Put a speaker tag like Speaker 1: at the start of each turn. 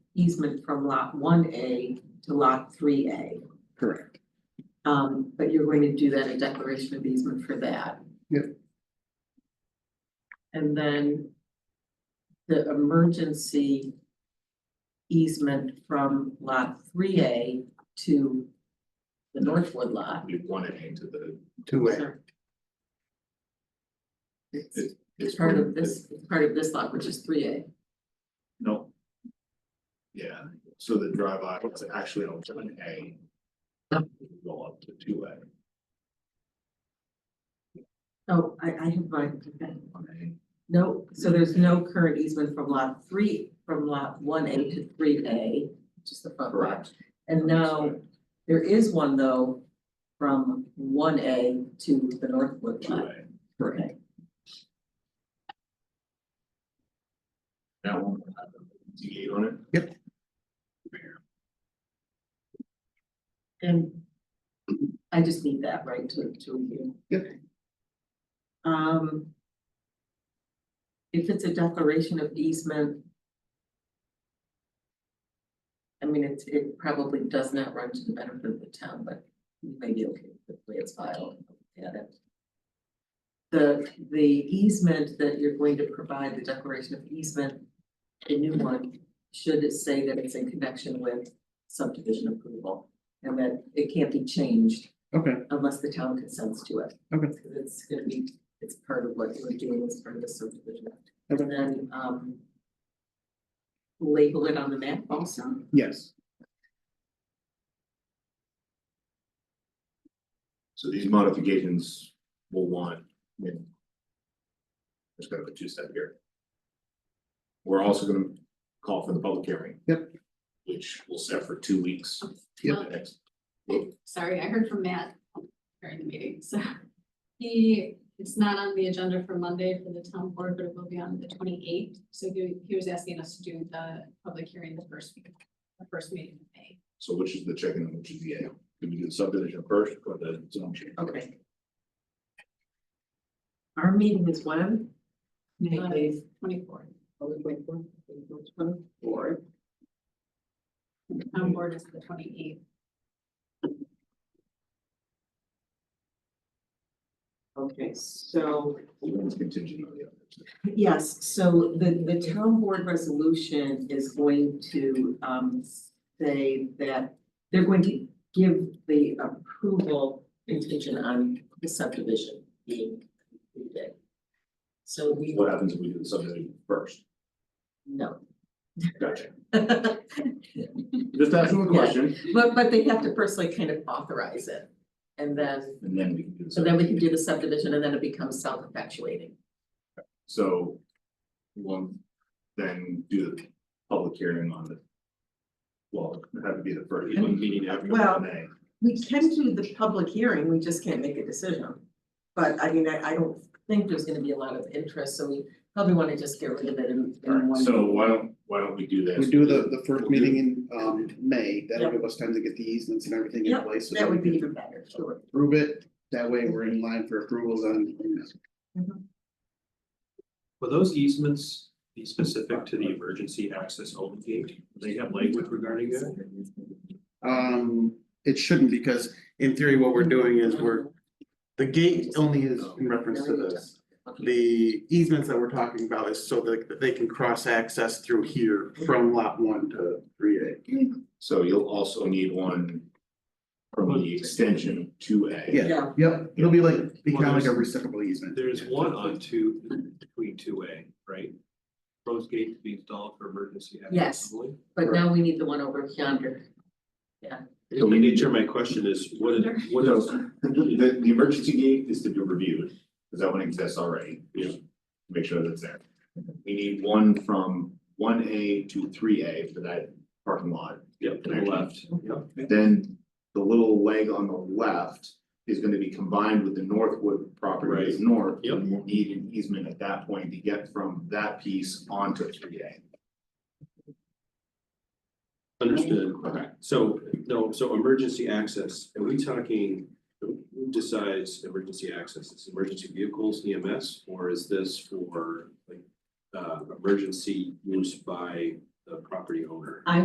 Speaker 1: easement from lot one A to lot three A.
Speaker 2: Correct.
Speaker 1: Um, but you're going to do that a declaration of easement for that.
Speaker 2: Yep.
Speaker 1: And then the emergency easement from lot three A to the Northwood lot.
Speaker 3: We want to aim to the,
Speaker 2: Two way.
Speaker 1: It's- It's
Speaker 3: it's.
Speaker 1: part of this, it's part of this lot, which is three A.
Speaker 3: No. Yeah, so the drive aisle is actually on one A. Go up to two A,
Speaker 1: Oh, I, I have my, okay.
Speaker 3: one A.
Speaker 1: No, so there's no current easement from lot three, from lot one A to three A, which is the front lot. And now, there is one though, from one A to the Northwood
Speaker 3: Two
Speaker 1: lot.
Speaker 3: A,
Speaker 2: Correct.
Speaker 3: that one will have a D eight on it.
Speaker 1: And I just need that right to, to review.
Speaker 2: Yep.
Speaker 1: Um. If it's a declaration of easement. I mean, it, it probably does not run to the benefit of the town, but you may be okay with the way it's filed. Yeah, that- The, the easement that you're going to provide, the declaration of easement, the new one, should it say that it's in connection with subdivision approval? And that it can't be changed
Speaker 2: Okay,
Speaker 1: unless the town consents to it.
Speaker 2: Okay.
Speaker 1: Because it's gonna be, it's part of what we're doing as part of the subdivision.
Speaker 2: Okay.
Speaker 1: And then, um. Label it on the map also,
Speaker 2: yes,
Speaker 3: So these modifications will want. Just gonna put two step here. We're also gonna call for the public hearing.
Speaker 2: Yep.
Speaker 3: Which will set for two weeks.
Speaker 2: Yep.
Speaker 3: The next-
Speaker 4: Sorry, I heard from Matt during the meeting, so. He, it's not on the agenda for Monday for the town board, but it will be on the twenty eighth. So he, he was asking us to do the public hearing the first week, the first meeting in May.
Speaker 3: So which is the chicken and which is the egg? Can we do the subdivision first or the zone change?
Speaker 1: okay. Our meeting is when?
Speaker 4: Twenty fourth,
Speaker 1: Twenty-four.
Speaker 4: town board is the twenty eighth.
Speaker 1: Okay, so.
Speaker 3: The one's contingent on the other.
Speaker 1: Yes, so the, the town board resolution is going to, um, say that they're going to give the approval contingent on the subdivision being completed. So we,
Speaker 3: What happens if we do the subdivision first?
Speaker 1: no.
Speaker 3: Gotcha.
Speaker 1: But,
Speaker 3: Just asking the question
Speaker 1: but they have to personally kind of authorize it. And then,
Speaker 3: and then we can do the.
Speaker 1: so then we
Speaker 3: subdivision.
Speaker 1: can do the subdivision and then it becomes self-effectuating.
Speaker 3: So. One, then do the public hearing on the. Well, that would be the first, one meeting after
Speaker 1: Well-
Speaker 3: one May.
Speaker 1: We can do the public hearing, we just can't make a decision. But I mean, I, I don't think there's gonna be a lot of interest, so we probably wanna just get rid of it in, in one.
Speaker 3: So why don't, why don't we do this?
Speaker 2: we do the, the
Speaker 3: We'll
Speaker 2: first
Speaker 3: do-
Speaker 2: meeting in, um, May, that'll give us time to get the easements and everything in
Speaker 1: Yep,
Speaker 2: place. so
Speaker 1: That
Speaker 2: we
Speaker 1: would be
Speaker 2: can
Speaker 1: even better, sure.
Speaker 2: Approve it, that way we're in line for approvals on,
Speaker 5: Will those easements be specific to the emergency access only gate? Do They have language regarding that?
Speaker 2: um, it shouldn't, because in theory, what we're doing is we're, the gate only is in reference to this. The easements that we're talking about is so that that they can cross access through here from lot one to three A.
Speaker 1: Mm.
Speaker 3: So you'll also need one. From the extension to A.
Speaker 2: Yeah.
Speaker 1: Yeah,
Speaker 2: Yep, it'll be like, become like a reciprocal easement.
Speaker 5: There's one on two, between two A, right? Rose gate to be installed for emergency
Speaker 1: Yes.
Speaker 5: access only?
Speaker 1: but now we need the one over yonder.
Speaker 3: So we
Speaker 5: The
Speaker 3: need
Speaker 5: nature of my question is, what is, what
Speaker 3: Well,
Speaker 5: is,
Speaker 3: the, the- the emergency gate is to be reviewed, because that one exists already.
Speaker 5: Yeah.
Speaker 3: Make sure that's there. We need one from one A to three A for that parking lot.
Speaker 5: yep, to the left, yep.
Speaker 3: Then the little leg on the left is gonna be combined with the Northwood property is north.
Speaker 5: Yep.
Speaker 3: And we'll need an easement at that point to get from that piece onto three A.
Speaker 5: Understood, okay, so, no, so emergency access, are we talking, who decides emergency access, is emergency vehicles EMS? Or is this for like, uh, emergency use by the property owner?